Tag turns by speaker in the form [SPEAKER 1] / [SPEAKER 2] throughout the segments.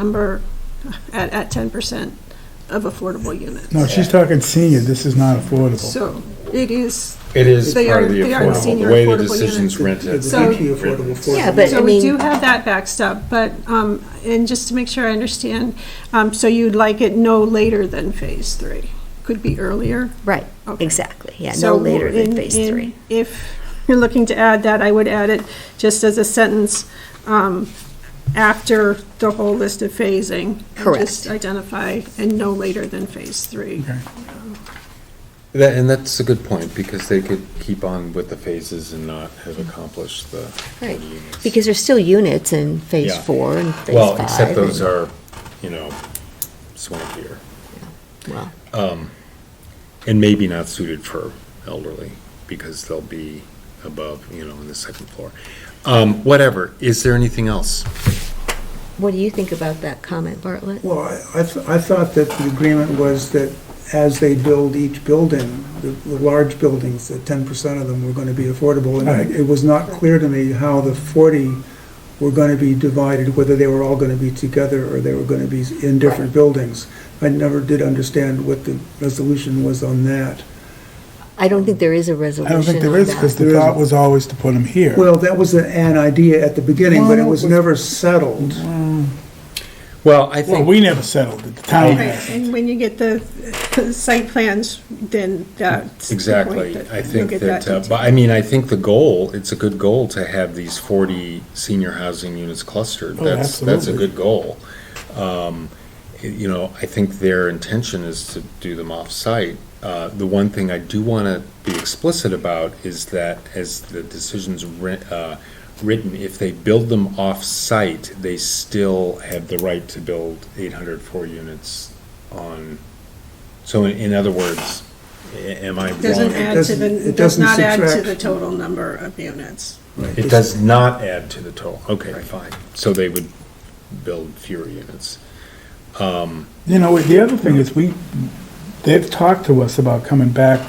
[SPEAKER 1] number at, at ten percent of affordable units.
[SPEAKER 2] No, she's talking senior, this is not affordable.
[SPEAKER 1] So it is,
[SPEAKER 3] It is
[SPEAKER 1] They
[SPEAKER 3] part of
[SPEAKER 1] are-
[SPEAKER 3] the
[SPEAKER 1] they are
[SPEAKER 3] affordable,
[SPEAKER 1] senior
[SPEAKER 3] the way the
[SPEAKER 1] affordable units.
[SPEAKER 3] decision's rented.
[SPEAKER 1] So-
[SPEAKER 4] Yeah, but I
[SPEAKER 1] so we do
[SPEAKER 4] mean,
[SPEAKER 1] have that backstop, but, um, and just to make sure I understand, um, so you'd like it no later than phase three? Could be earlier?
[SPEAKER 4] right,
[SPEAKER 1] Okay.
[SPEAKER 4] exactly, yeah,
[SPEAKER 1] So
[SPEAKER 4] no later
[SPEAKER 1] in-
[SPEAKER 4] than phase
[SPEAKER 1] in-
[SPEAKER 4] three.
[SPEAKER 1] If you're looking to add that, I would add it just as a sentence um, after the whole list of phasing.
[SPEAKER 4] Correct.
[SPEAKER 1] Just identify and no later than phase three.
[SPEAKER 2] Okay.
[SPEAKER 3] That- And that's a good point, because they could keep on with the phases and not have accomplished the the
[SPEAKER 4] Right.
[SPEAKER 3] units.
[SPEAKER 4] Because there's still units in phase
[SPEAKER 3] Yeah.
[SPEAKER 4] four and phase five.
[SPEAKER 3] Well, except
[SPEAKER 4] and-
[SPEAKER 3] those are, you know, swankier, Um,
[SPEAKER 4] well,
[SPEAKER 3] and maybe not suited for elderly, because they'll be above, you know, on the second floor. Um, Whatever, is there anything else?
[SPEAKER 4] What do you think about that comment, Bartlett?
[SPEAKER 5] Well, I, I th- I thought that the agreement was that as they build each building, the, the large buildings, that ten percent of them were gonna be affordable. And
[SPEAKER 2] Right.
[SPEAKER 5] I- it was not clear to me how the forty were gonna be divided, whether they were all gonna be together or they were gonna be in different buildings. I never did understand what the resolution was on that.
[SPEAKER 4] I don't think there is a
[SPEAKER 2] I
[SPEAKER 4] resolution
[SPEAKER 2] don't think there
[SPEAKER 4] on
[SPEAKER 2] is,
[SPEAKER 4] that.
[SPEAKER 2] because the
[SPEAKER 5] There isn't.
[SPEAKER 2] thought was always to put them here.
[SPEAKER 5] Well, that was an idea at the beginning, but it was never settled.
[SPEAKER 3] Well, I
[SPEAKER 2] Well,
[SPEAKER 3] think.
[SPEAKER 2] we never settled it, the
[SPEAKER 5] Oh,
[SPEAKER 2] town.
[SPEAKER 1] Right, and when you get the site plans, then that's the point
[SPEAKER 3] Exactly.
[SPEAKER 1] that
[SPEAKER 3] I
[SPEAKER 1] you'll
[SPEAKER 3] think
[SPEAKER 1] get
[SPEAKER 3] that, uh,
[SPEAKER 1] detail.
[SPEAKER 3] but I mean, I think the goal, it's a good goal to have these 40 senior housing units clustered.
[SPEAKER 2] Oh,
[SPEAKER 3] That's, that's a
[SPEAKER 2] absolutely.
[SPEAKER 3] good goal. Um, y- You know, I think their intention is to do them off-site. Uh, The one thing I do want to be explicit about is that as the decision's wri- uh, written, if they build them off-site, they still have the right to build 804 units on, so in- in other words, a- am I wrong?
[SPEAKER 1] Doesn't add to the,
[SPEAKER 5] It
[SPEAKER 1] does
[SPEAKER 5] doesn't
[SPEAKER 1] not add to
[SPEAKER 5] subtract.
[SPEAKER 1] the total number of units.
[SPEAKER 3] It does not add to the total, okay, fine. So they would build fewer units.
[SPEAKER 2] You know, the other thing is, we, they've talked to us about coming back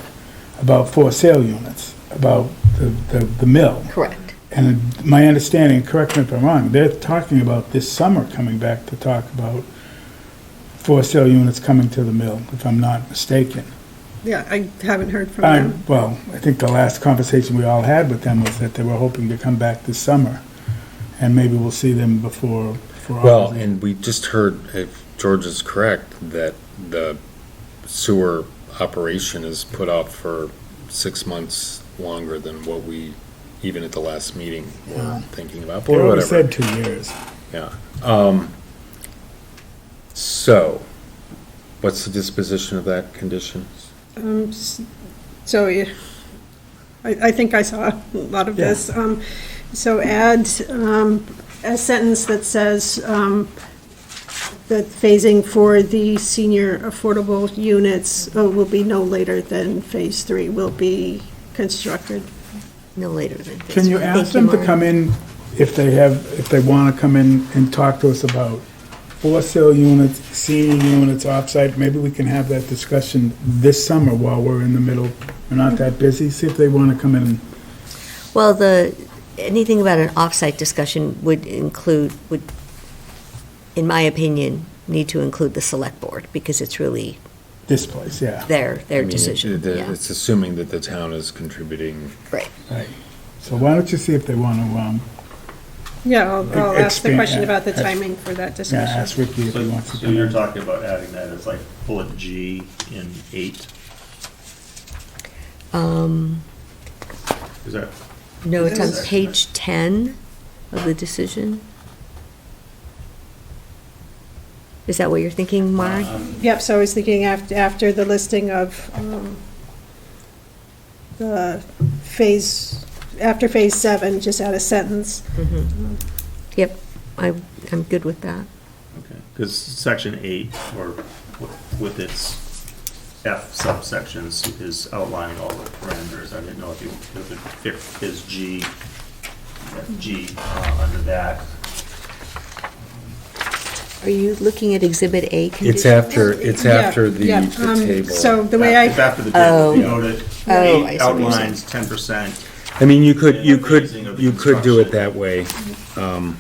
[SPEAKER 2] about for sale units, about the, the the mill.
[SPEAKER 4] Correct.
[SPEAKER 2] And my understanding, correct me if I'm wrong, they're talking about this summer coming back to talk about for sale units coming to the mill, if I'm not mistaken.
[SPEAKER 1] Yeah, I haven't heard from
[SPEAKER 2] I,
[SPEAKER 1] them.
[SPEAKER 2] well, I think the last conversation we all had with them was that they were hoping to come back this summer, and maybe we'll see them before, before.
[SPEAKER 3] Well, and we just heard, if George is correct, that the sewer operation is put off for six months longer than what we, even at the last meeting, were thinking about,
[SPEAKER 2] They
[SPEAKER 3] or
[SPEAKER 2] already
[SPEAKER 3] whatever.
[SPEAKER 2] said two years.
[SPEAKER 3] Yeah. Um, So, what's the disposition of that condition?
[SPEAKER 1] Um, s- So I, I think I saw a lot of
[SPEAKER 2] Yeah.
[SPEAKER 1] this. Um, So add um, a sentence that says um, that phasing for the senior affordable units uh, will be no later than phase three will be constructed.
[SPEAKER 4] No later than phase.
[SPEAKER 2] Can you
[SPEAKER 4] four.
[SPEAKER 2] ask
[SPEAKER 4] Thank
[SPEAKER 2] them to
[SPEAKER 4] Maureen.
[SPEAKER 2] come in if they have, if they want to come in and talk to us about for sale units, senior units, offsite? Maybe we can have that discussion this summer while we're in the middle, we're not that busy, see if they want to come in and
[SPEAKER 4] Well, the, anything about an off-site discussion would include, would, in my opinion, need to include the select board, because it's really
[SPEAKER 2] this place, yeah.
[SPEAKER 4] their,
[SPEAKER 3] I
[SPEAKER 4] their
[SPEAKER 3] mean, it-
[SPEAKER 4] decision,
[SPEAKER 3] it-
[SPEAKER 4] yeah.
[SPEAKER 3] It's assuming that the town is contributing
[SPEAKER 4] Right.
[SPEAKER 2] So why don't you see if they want to, um,
[SPEAKER 1] Yeah, I'll I'll ask the
[SPEAKER 2] Expand-
[SPEAKER 1] question about the
[SPEAKER 2] yeah.
[SPEAKER 1] timing for that
[SPEAKER 2] yeah,
[SPEAKER 1] discussion.
[SPEAKER 2] ask Ricky if he
[SPEAKER 6] So,
[SPEAKER 2] wants to
[SPEAKER 6] so
[SPEAKER 2] come
[SPEAKER 6] you're
[SPEAKER 2] in.
[SPEAKER 6] talking about adding that as like bullet G in eight,
[SPEAKER 4] Um,
[SPEAKER 6] is that,
[SPEAKER 4] No, it's on
[SPEAKER 6] Yes.
[SPEAKER 4] page 10 of the decision. Is that what you're thinking, Mark?
[SPEAKER 1] Yep, so I was thinking after, after the listing of, um, the phase, after phase seven, just add a sentence.
[SPEAKER 4] Yep, I, I'm good with that.
[SPEAKER 6] okay, because section eight, or with- with its F subsections, is outlining all the parameters, I didn't know if you, if it fit is G, that G uh, under that.
[SPEAKER 4] Are you looking at Exhibit A condition?
[SPEAKER 3] It's after, it's
[SPEAKER 1] Yeah,
[SPEAKER 3] after the
[SPEAKER 1] yeah,
[SPEAKER 3] the
[SPEAKER 1] um,
[SPEAKER 3] table.
[SPEAKER 1] So the way
[SPEAKER 6] It's
[SPEAKER 1] I,
[SPEAKER 6] after the table, if you go
[SPEAKER 4] Oh, I
[SPEAKER 6] to
[SPEAKER 4] see what you're
[SPEAKER 6] eight outlines ten percent,
[SPEAKER 3] I mean, you could, you could,
[SPEAKER 6] Phasing of the
[SPEAKER 3] you could do it
[SPEAKER 6] construction.
[SPEAKER 3] that way. Um,